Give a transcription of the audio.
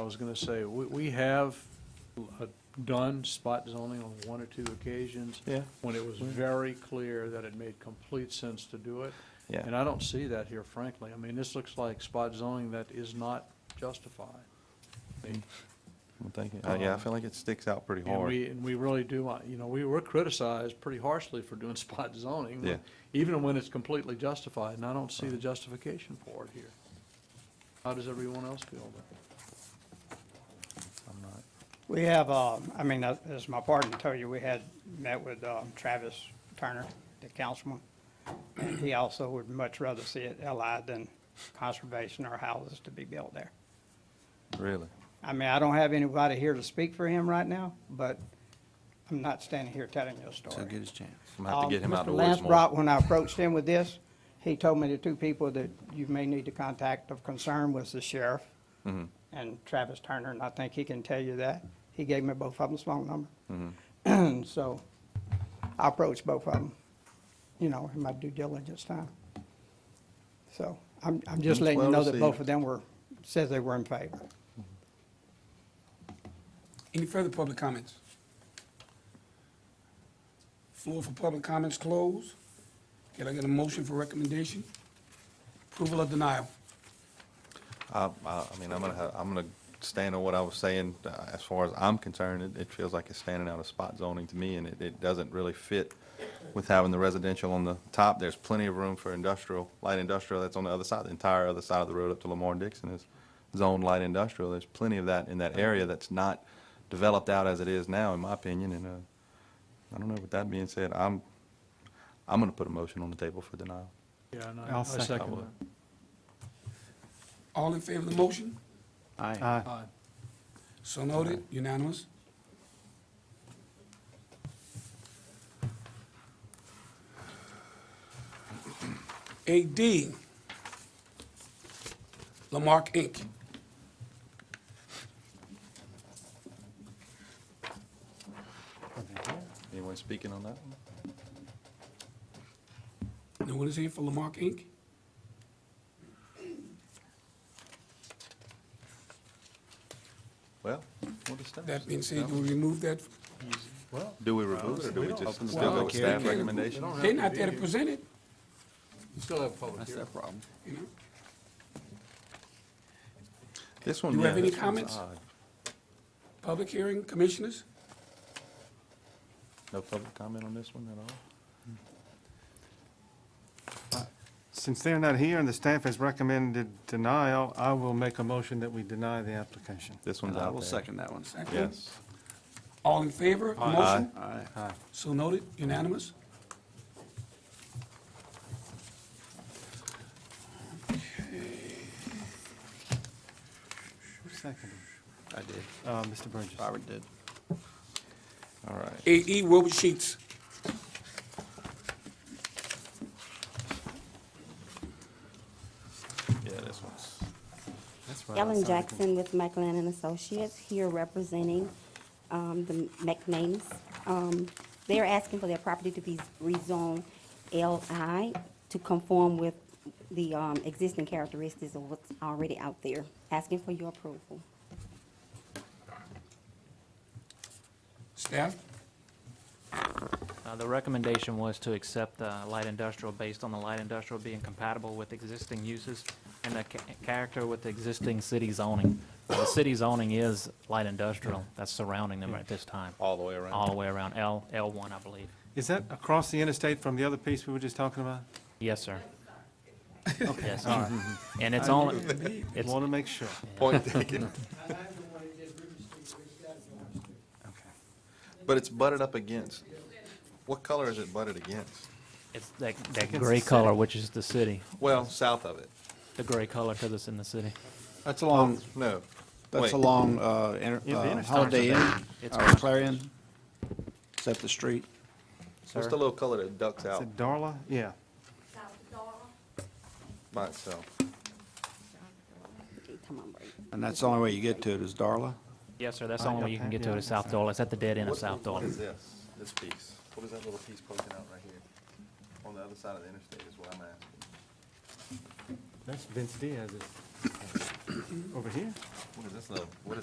I was going to say, we, we have uh, done spot zoning on one or two occasions Yeah, when it was very clear that it made complete sense to do it. And yeah. I don't see that here frankly. I mean, this looks like spot zoning that is not justified. I mean, Well, Thank you. Uh, Yeah, I feel like it sticks out pretty And hard. we, and we really do, want- you know, we were criticized pretty harshly for doing spot zoning. Yeah. Even when it's completely justified, and I don't see the justification for it here. How does everyone else feel about it? I'm not. We have, uh, I mean, uh, as my partner told you, we had met with uh, Travis Turner, the councilman, and he also would much rather see it LI than conservation or houses to be built there. Really? I mean, I don't have anybody here to speak for him right now, but I'm not standing here telling you a So story. get his chance. I'm gonna have to Um, get him out of the Mr. woods Lance more. Brock, when I approached him with this, he told me the two people that you may need to contact of concern was the sheriff Mm-hmm. and Travis Turner, and I think he can tell you that. He gave me both of them's phone Mm-hmm. number. So I approached both of them, you know, in my due diligence time. So I'm, I'm It's just letting you well know that both received. of them were, says they were in favor. Any further public comments? Floor for public comments closed. Can I get a motion for recommendation? Approval or denial? I, I I mean, I'm gonna, have- I'm gonna stand on what I was saying. Uh, As far as I'm concerned, it, it feels like it's standing out of spot zoning to me, and it, it doesn't really fit with having the residential on the top. There's plenty of room for industrial, light industrial that's on the other side, the entire other side of the road up to Lamar Dixon is zoned light industrial. There's plenty of that in that area that's not developed out as it is now, in my opinion, and, uh, I don't know, with that being said, I'm, I'm gonna put a motion on the table for denial. Yeah, and I'll I I second second that. that. All in favor of the motion? Aye. Aye. So noted, unanimous. AD, Lamarck Inc. Anyone speaking on that one? No one is here for Lamarck Inc.? Well, what is that? That being said, do we remove that? Do we remove it, or do we just still go Well, with they staff can't- recommendation? They're not there to present it, You still have public hearing. problem. you know? This one, Do you yeah, have any this one's comments? odd. Public hearing, commissioners? No public comment on this one at all? Since they're not here and the staff has recommended denial, I will make a motion that we deny the application. This one's out I there. will second that one. Second? Yes. All in favor of the motion? Aye. So noted, unanimous. Who seconded? I did. Uh, Mr. Burgess. Robert did. All right. AE E, Wilbur Sheets. Yeah, this one's, That's right, I Ellen seconded. Jackson with McLennan and Associates, here representing um, the McNames. Um, They're asking for their property to be rezoned LI to conform with the um, existing characteristics of what's already out there. Asking for your approval. Staff, Uh, The recommendation was to accept uh, light industrial based on the light industrial being compatible with existing uses and the ca- character with the existing city zoning. The city zoning is light industrial that's surrounding them at this time, all the way around. all the way around L, L1, I believe. Is that across the interstate from the other piece we were just talking about? Yes, sir. Yes, sir. And it's only, it's, Want to make sure. Point taken. But it's butted up against. What color is it butted against? it's that, that the gray city. color, which is the city, Well, south of it. the gray color because it's in the city. That's along, No. that's Wait. along uh, inter- Yeah, the uh, interstate's Holiday Inn, It's or Clarion. Is that the street? What's the little color that ducks Is out it Darla? Yeah. by itself? Come on, Brady. And that's the only way you get to it is Darla? Yes, sir, that's Oh, the only way yeah, you can okay, get to yeah, it, is that's South Dollar. It's at the dead end of What's the- South Dollar. What is this, this piece? What is that little piece poking out right here? On the other side of the interstate is what I'm asking. That's Vince Diaz's. Over here? What is this little, what is